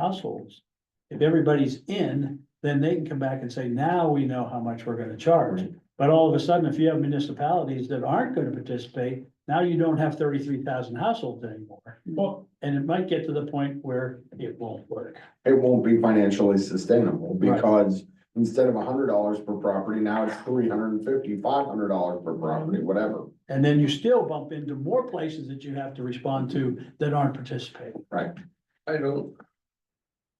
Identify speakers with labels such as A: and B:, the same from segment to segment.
A: households. If everybody's in, then they can come back and say, now we know how much we're gonna charge. But all of a sudden, if you have municipalities that aren't gonna participate, now you don't have thirty-three thousand households anymore.
B: Well-
A: And it might get to the point where it won't work.
C: It won't be financially sustainable
A: Right.
C: because instead of hundred dollars per property, now it's three hundred and fifty, five hundred dollars per property, whatever.
A: And then you still bump into more places that you have to respond to that aren't participating.
C: I don't.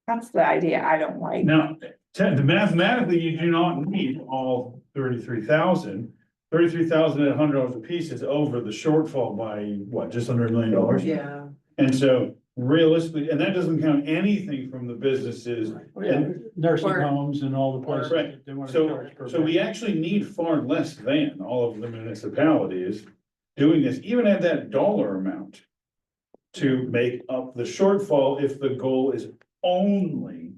D: That's the idea I don't like.
B: Now, te- mathematically, you do not need all thirty-three thousand. Thirty-three thousand at hundred dollars a piece is over the shortfall by, what, just under a million dollars?
E: Yeah.
B: And so realistically, and that doesn't count anything from the businesses.
A: Nursing
E: Or-
A: homes and all the places
B: Oh, Right.
A: that they wanna
B: So,
A: charge. per
B: so we
A: bed.
B: actually need far less than all of the municipalities doing this, even at that dollar amount. To make up the shortfall if the goal is only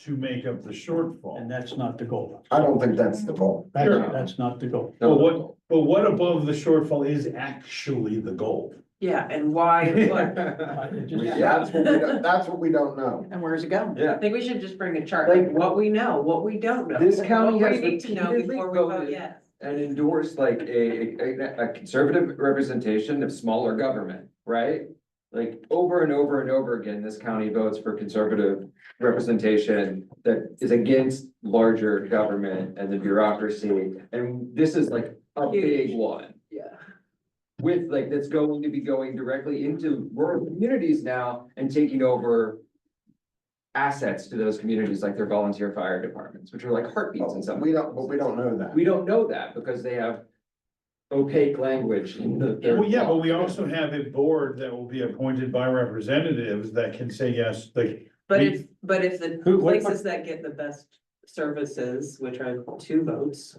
B: to make up the
A: And
B: shortfall.
A: that's not the goal.
C: I don't think that's the goal.
A: That's,
B: Sure.
A: that's not the goal.
B: But what, but what above the shortfall is actually the goal?
E: Yeah, and why, what?
A: I- it just-
C: Yeah, That's what we don't, that's what we don't know.
E: And where's it going?
F: Yeah.
E: I think we should just bring a chart, like what we know, what we don't know.
F: This county
E: what we
F: has
E: need to know
F: repeatedly
E: before we vote
F: voted-
E: yes.
F: and endorse like a, a, a conservative representation of smaller government, right? Like over and over and over again, this county votes for conservative representation that is against larger government and the bureaucracy. And this is like a big one
E: Yeah.
F: with like, that's going to be going directly into rural communities now and taking over assets to those communities, like their volunteer fire departments, which are like heartbeats in some.
C: We don't, but we don't know that.
F: We don't know that because they have opaque language in the. their-
B: Well, yeah, but we also have a board that will be appointed by representatives that can say yes, like,
E: But
B: We-
E: if, but if the
A: Who- what-
E: places that get the best services, which are two votes.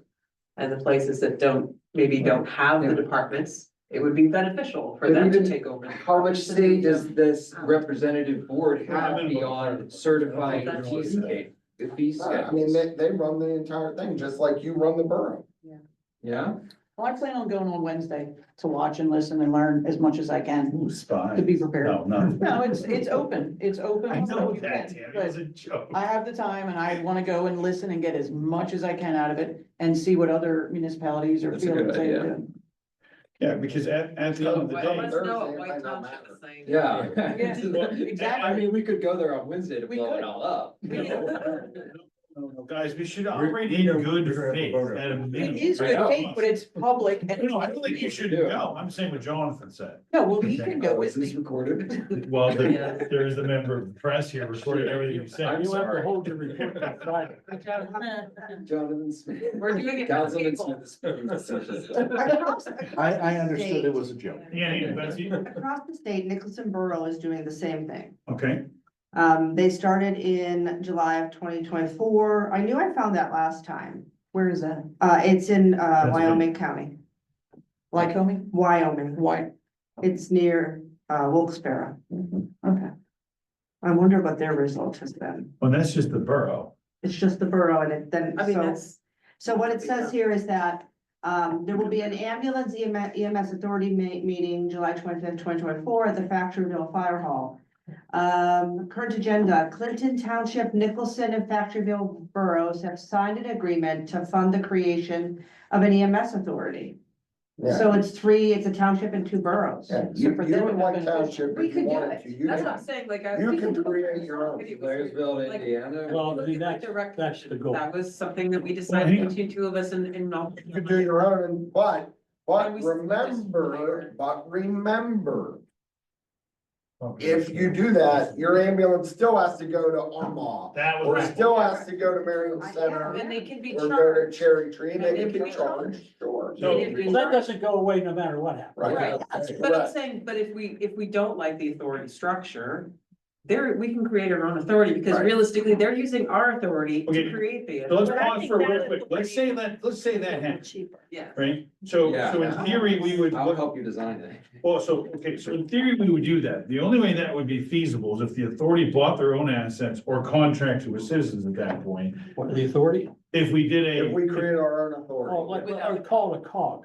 E: And the places that don't, maybe don't have the departments, it would be beneficial for
F: But
E: them to
F: even
E: take over. the
F: How
E: departments.
F: much say does this representative board have beyond certifying
E: That's-
F: cheesecake? The fee
C: I mean,
F: schedules,
C: they, they run the entire thing, just like you run the borough.
F: yeah?
G: Well, I plan on going on Wednesday to watch and listen and learn as much as I can
B: ooh, spy.
G: to be prepared.
B: No, no.
G: No, it's, it's open, it's open.
B: I know
G: so you
B: that,
G: can,
B: Tammy,
G: but
B: it's a joke.
G: I have the time and I want to go and listen and get as much as I can out of it and see what other municipalities are
F: That's a good
G: feeling.
F: idea.
B: Yeah, because at, at the end of the
E: Let
B: day,
E: us know what
C: Thursday, it
E: White
C: might not
E: Township is saying.
F: Yeah. I
G: Exactly.
F: mean, we could go there on Wednesday to
G: We
F: blow it
G: could.
F: all up.
B: No, no, Guys, we should operate in good faith at a minimum.
G: It is
F: I
G: good
F: know.
G: faith, but it's public and.
B: No, I don't think you should go. I'm saying what Jonathan said.
G: No, well, you can go
F: Oh, is
G: with
F: this
G: me.
F: recorded?
B: Well,
E: Yeah.
B: there, there is a member of the press here recording everything you
F: I'm
B: said.
A: You have to
F: sorry.
A: hold your report by Friday.
F: Jonathan Smith.
E: We're doing it. for
F: Councilman
E: people.
F: Smith.
G: I,
H: a joke.
B: Yeah, yeah, that's you.
H: Across the state, Nicholson Borough is doing the same thing.
B: Okay,
H: Um, they started in July of twenty twenty-four. I knew I found that last time.
G: Where is that?
H: Uh, it's in, uh,
B: Pennsylvania.
H: Wyoming County,
G: Lycoming?
H: Wyoming.
G: Why?
H: It's near, uh, Wilkes-Barre.
G: Okay.
H: I wonder what their result has been.
B: well, that's just the borough.
H: It's just the borough and it then,
E: I mean,
H: so,
E: that's.
H: so what it says here is that, um, there will be an ambulance E EMS, EMS authority ma- meeting July twenty-fifth, twenty twenty-four at the Factoryville Fire Hall. Um, current agenda, Clinton Township, Nicholson and Factoryville boroughs have signed an agreement to fund the creation of an EMS authority.
C: Yeah.
H: So it's three, it's a township and two boroughs.
C: Yeah,
G: So
C: you,
G: for
C: you
G: them,
C: and
G: it
C: White
G: would have been-
C: Township,
H: We
C: if
H: could
C: you
H: do
C: wanted
H: it.
C: to, you
E: That's what I'm
C: can.
E: saying, like. I-
C: You
E: we
C: can
E: do it
C: create
E: for
C: your own
E: somebody before we do it,
F: Blairsville,
E: like,
F: Indiana.
A: Well, see, that's,
E: Direct-
A: that's the goal.
E: That was something that we
B: hang
E: decided
B: on.
E: between two of us and, and. not-
C: You could do your own, but, but
E: And we-
C: remember, but remember,
B: Okay.
C: if you do that, your ambulance still has to go to Omaha.
B: That
C: Or
B: was.
C: still has to go to Marion Center
E: And they can be
C: or go to
E: charged.
C: Cherry Tree and
E: And
C: they can be charged, sure.
B: So-
E: They can be
A: Well, that
E: charged.
A: doesn't go away no matter what happens.
E: Right,
C: Right.
E: that's what I'm
C: Right.
E: saying, but if we, if we don't like the authority structure, there, we can create our own authority, because
C: Right.
E: realistically, they're using our authority
B: Okay,
E: to create the.
B: So let's
E: authority.
B: pause for real quick. Let's say that, let's say that happens,
G: Cheaper.
E: Yeah.
B: right? So,
F: Yeah.
B: so in theory, we would,
F: I'll help you design it.
B: well, so, okay, so in theory, we would do that. The only way that would be feasible is if the authority bought their own assets or contracted with citizens at that point.
A: What, the authority?
B: If we did a.
C: If we create our own
A: Well,
C: authority,
A: like, I would call it a cog,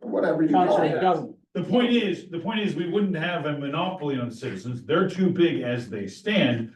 C: whatever you call
A: council
C: it.
A: of government.
B: The point is, the point is, we wouldn't have a monopoly on citizens. They're too big as they stand.